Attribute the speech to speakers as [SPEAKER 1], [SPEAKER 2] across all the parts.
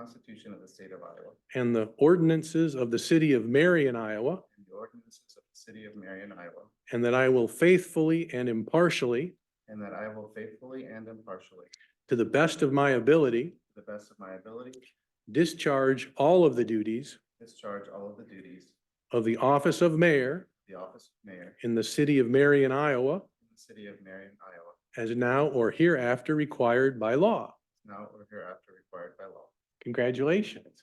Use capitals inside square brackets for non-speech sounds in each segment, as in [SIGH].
[SPEAKER 1] Constitution of the State of Iowa
[SPEAKER 2] and the ordinances of the city of Marion, Iowa,
[SPEAKER 1] and the ordinances of the City of Marion, Iowa,
[SPEAKER 2] and that I will faithfully and impartially,
[SPEAKER 1] and that I will faithfully and impartially, to
[SPEAKER 2] to the best of my ability,
[SPEAKER 1] the best of my ability,
[SPEAKER 2] discharge all of the duties
[SPEAKER 1] discharge all of the duties of
[SPEAKER 2] of the office of mayor
[SPEAKER 1] the office of mayor
[SPEAKER 2] in the city of Marion, Iowa,
[SPEAKER 1] in the City of Marion, Iowa,
[SPEAKER 2] as now or hereafter required by law.
[SPEAKER 1] now or hereafter required by law.
[SPEAKER 2] Congratulations.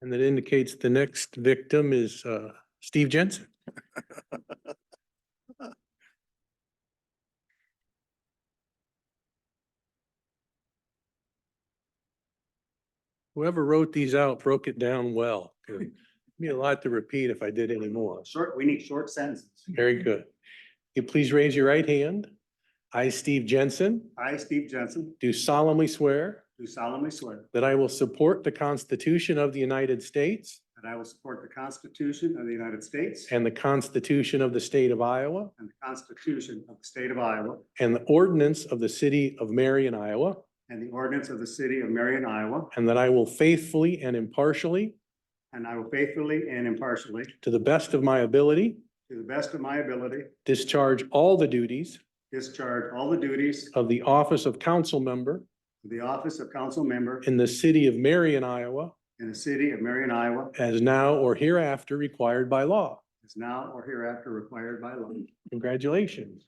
[SPEAKER 2] And that indicates the next victim is uh, Steve Jensen. [LAUGHS] Whoever wrote these out broke it down well. Good. Be a lot to repeat if I did any more.
[SPEAKER 3] Short, we need short sentences.
[SPEAKER 2] Very good. You please raise your right hand. I, Steve Jensen,
[SPEAKER 3] I, Steve Jensen,
[SPEAKER 2] do solemnly swear
[SPEAKER 3] do solemnly swear
[SPEAKER 2] that I will support the Constitution of the United States
[SPEAKER 3] that I will support the Constitution of the United States and
[SPEAKER 2] and the Constitution of the State of Iowa
[SPEAKER 3] the Constitution of the State of Iowa
[SPEAKER 2] and the ordinance of the City of Marion, Iowa,
[SPEAKER 3] and the ordinance of the City of Marion, Iowa,
[SPEAKER 2] and that I will faithfully and impartially,
[SPEAKER 3] and I will faithfully and impartially,
[SPEAKER 2] to the best of my ability,
[SPEAKER 3] to the best of my ability,
[SPEAKER 2] discharge all the duties
[SPEAKER 3] discharge all the duties
[SPEAKER 2] of the office of council member
[SPEAKER 3] of the office of council member
[SPEAKER 2] in the City of Marion, Iowa,
[SPEAKER 3] in the City of Marion, Iowa,
[SPEAKER 2] as now or hereafter required by law.
[SPEAKER 3] as now or hereafter required by law.
[SPEAKER 2] Congratulations.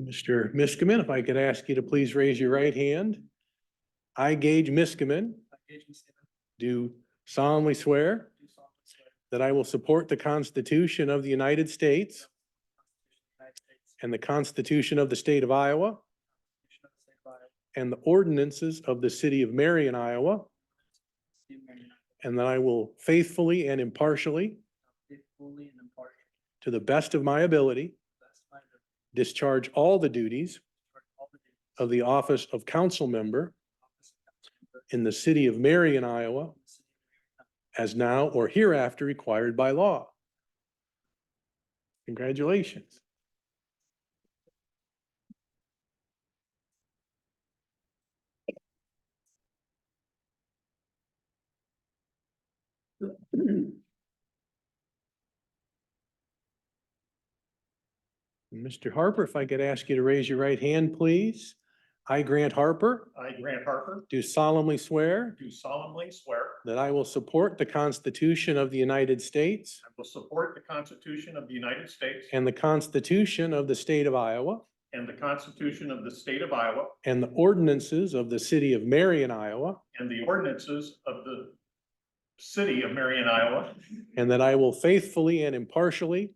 [SPEAKER 2] Mr. Miskman, if I could ask you to please raise your right hand. I, Gage Miskman, do solemnly swear that I will support the Constitution of the United States and the Constitution of the State of Iowa and the ordinances of the City of Marion, Iowa, and that I will faithfully and impartially,
[SPEAKER 4] Fully and impartially.
[SPEAKER 2] to the best of my ability,
[SPEAKER 4] That's my duty.
[SPEAKER 2] discharge all the duties
[SPEAKER 4] for all the duties
[SPEAKER 2] of the office of council member
[SPEAKER 4] of office of council member
[SPEAKER 2] in the City of Marion, Iowa,
[SPEAKER 4] in the city of Marion, Iowa,
[SPEAKER 2] as now or hereafter required by law. Congratulations. Mr. Harper, if I could ask you to raise your right hand, please. I, Grant Harper,
[SPEAKER 5] I, Grant Harper,
[SPEAKER 2] do solemnly swear
[SPEAKER 5] do solemnly swear
[SPEAKER 2] that I will support the Constitution of the United States
[SPEAKER 5] I will support the Constitution of the United States
[SPEAKER 2] and the Constitution of the State of Iowa
[SPEAKER 5] and the Constitution of the State of Iowa
[SPEAKER 2] and the ordinances of the City of Marion, Iowa,
[SPEAKER 5] and the ordinances of the City of Marion, Iowa,
[SPEAKER 2] and that I will faithfully and impartially,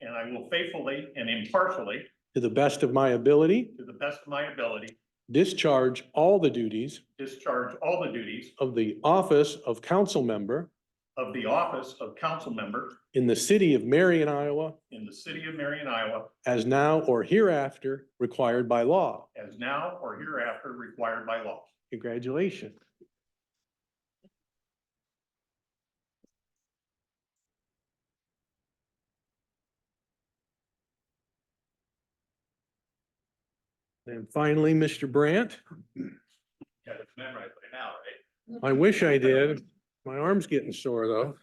[SPEAKER 5] and I will faithfully and impartially,
[SPEAKER 2] to the best of my ability,
[SPEAKER 5] to the best of my ability,
[SPEAKER 2] discharge all the duties
[SPEAKER 5] discharge all the duties
[SPEAKER 2] of the office of council member
[SPEAKER 5] of the office of council member
[SPEAKER 2] in the City of Marion, Iowa,
[SPEAKER 5] in the City of Marion, Iowa,
[SPEAKER 2] as now or hereafter required by law.
[SPEAKER 5] as now or hereafter required by law.
[SPEAKER 2] Congratulations. And finally, Mr. Brandt,
[SPEAKER 5] Yeah, it's memorized by now, right?
[SPEAKER 2] I wish I did. My arm's getting sore, though.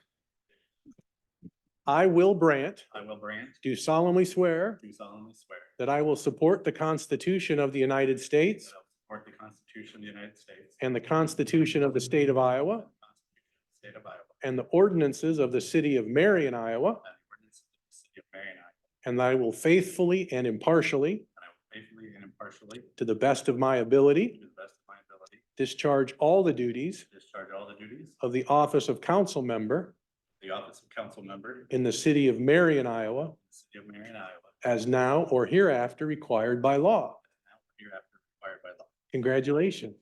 [SPEAKER 2] I, Will Brandt,
[SPEAKER 6] I, Will Brandt,
[SPEAKER 2] do solemnly swear
[SPEAKER 6] do solemnly swear
[SPEAKER 2] that I will support the Constitution of the United
[SPEAKER 6] that
[SPEAKER 2] States
[SPEAKER 6] I will support the Constitution of the United States
[SPEAKER 2] and the Constitution of the State of Iowa
[SPEAKER 6] and the Constitution of the State of Iowa
[SPEAKER 2] and the ordinances of the City of Marion, Iowa,
[SPEAKER 6] and the ordinances of the City of Marion, Iowa,
[SPEAKER 2] And that I will faithfully and impartially,
[SPEAKER 6] and I will faithfully and impartially,
[SPEAKER 2] to the best of my
[SPEAKER 6] to
[SPEAKER 2] ability,
[SPEAKER 6] the best of my ability,
[SPEAKER 2] discharge all the duties
[SPEAKER 6] discharge all the duties of
[SPEAKER 2] of the office of council member
[SPEAKER 6] the office of council member in
[SPEAKER 2] in the city of Marion, Iowa,
[SPEAKER 6] the City of Marion, Iowa,
[SPEAKER 2] as now or hereafter required by law.
[SPEAKER 6] as now or hereafter required by law.
[SPEAKER 2] Congratulations.